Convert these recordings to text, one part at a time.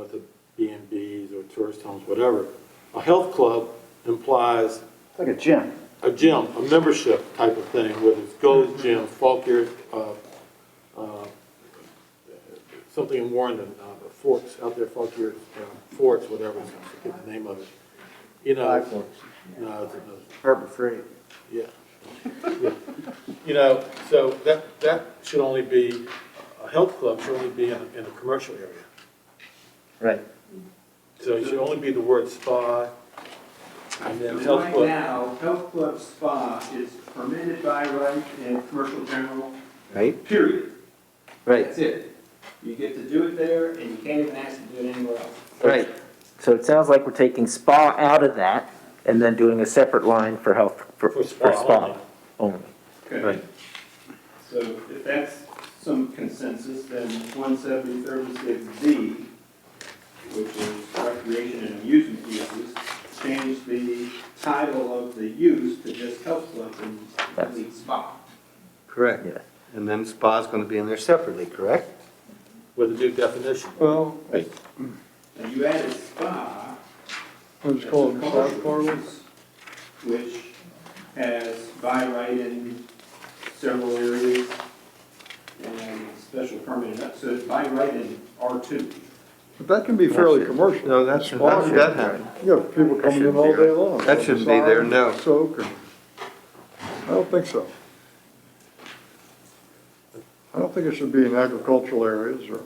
at the B and Bs or tourist homes, whatever. A health club implies Like a gym. a gym, a membership type of thing, whether it's Gold's Gym, Faulkner, uh, uh, something in Warrenton, uh, Forks, out there, Faulkner, uh, Forts, whatever, I forget the name of it. You know. No, it's another- Harbor Freight. yeah. Yeah. You know, so that, that should only be, a health club should only be in, in a commercial area. Right. So it should only be the word spa and then health Right club. now, health club spa is permitted by right in commercial general, Right? period. Right, That's it. You get to do it there, and you can't even ask to do it anywhere else. right. So it sounds like we're taking spa out of that and then doing a separate line for health, for For for spa spa only. Okay. So if that's some consensus, then 17036D, which is recreation and amusement uses, change the title of the use to just health club and lead spa. Correct. Yeah. And then spa's gonna be in there separately, correct? With a new definition. Well, And you added spa, it's called massage parlors. which has by right in several areas and special permit, in- so it's by right in R2. But that can be fairly commercial. No, that's- Spa, that should- that happened. You have people coming in all day long. That shouldn't be there, no. Soak or, I don't think so. I don't think it should be in agricultural areas or,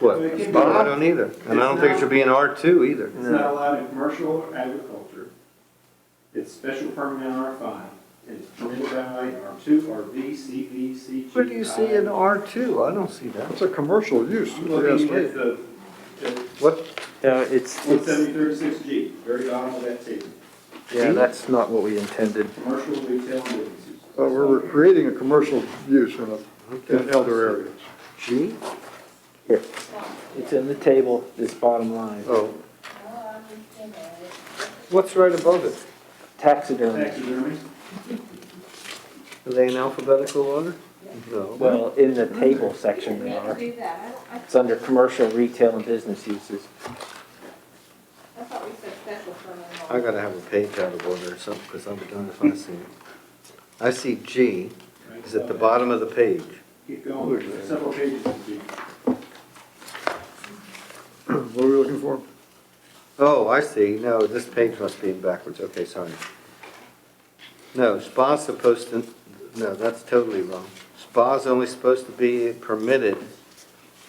What? It can be- Spa, I don't either. And I don't think it should be in R two either. It's not allowed in commercial or agriculture. It's special permit in R5. It's permitted by right in R2, RV, CV, CG. What do you see in R two? I don't see that. it's a commercial use, if I'm you ask looking me. at the the What, No, it's, it's, 17036G, very bottom of that table, yeah, that's not what we intended. commercial retail and business uses. But we're creating a commercial use in a, in other areas. G? Here. It's in the table, this bottom line. Oh. What's right above it? Taxidermy. Taxidermy, Are they in alphabetical order? No. Well, in the table section they Can't are. do that. I It's under commercial, retail, and business uses. I thought we said special permit. I gotta have a page out of order or something, because I'm done if I see it. I see G right? is at the bottom of the page. Keep going, several pages of G. What are we looking for? Oh, I see. No, this page must be backwards. Okay, sorry. No, spa's supposed to, no, that's totally wrong. Spa's only supposed to be permitted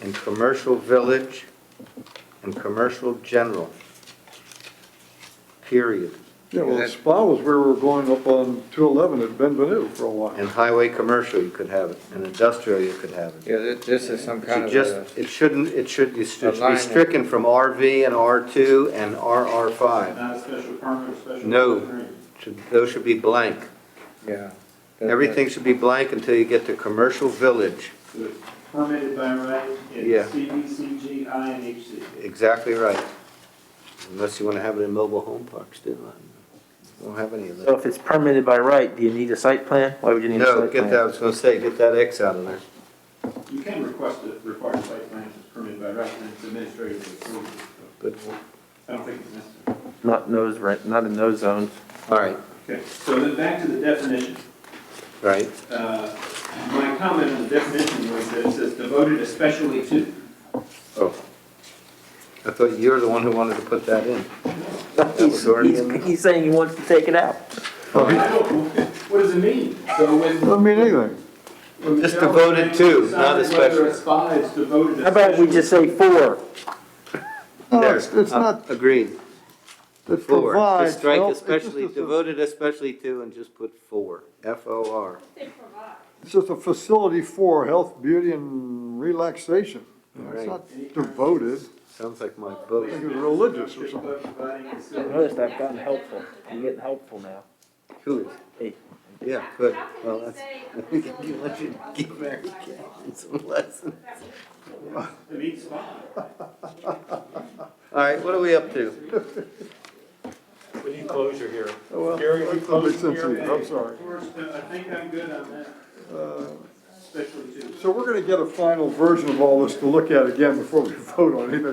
in commercial village and commercial general. Period. Yeah, well, spa was where we were going up on two eleven at Benvenue for a while. In highway commercial, you could have it. In industrial, you could have it. Yeah, thi- this is some kind It should of uh, just, a, it shouldn't, it should, it should be Alignment. stricken from RV and R2 and RR5. Not a Uh, special permit or special. No. permit. Should- Those should be blank. yeah. That- Everything should be blank until you get to commercial village. So it's Permitted by right in Yeah. CV, CG, I, and HC. Exactly right. Unless you want to have it in mobile home parks, do I don't have any of So that. if it's permitted by right, do you need a site plan? Why would you need a site No, plan? get that, I was going to say, get that X out of there. You can request a required site plan if it's permitted by right, and it's administratively approved. But, I don't think it's necessary. Not in those, re- not in those zones. all right, Okay, so then back to the definition. right. Uh, My comment on the definition was that it says devoted especially to. Oh. I thought you were the one who wanted to put that in. He's, was already he's- in there. he's saying he wants to take it out. I don't- What does it mean? So when. Doesn't mean anything. when Just Michelle devoted was to, saying not decide Whether especially. a spa is devoted. How about we just say for? No, There, it's, it's uh, not, Agreed. it Four. provides Just strike health- it's especially, just a- devoted especially to, and just put four. F O R. They provide. It's just a facility for health, beauty, and relaxation. You know, It's Right. not devoted. Sounds like my I book. think it's religious or something. Providing facilities. Notice I've gotten helpful. I'm getting helpful now. Cool. Hey. Yeah, good. How can Well, we that's. say a You facility let you doesn't give provide Mary spa? Catherine some lessons. It means spa. All right, what are we up to? We need closure here. Oh, well, Gary, we that close makes sense to here? me. I'm sorry. I think I'm good on that, uh, especially to. So we're gonna get a final version of all this to look at again before we vote on anything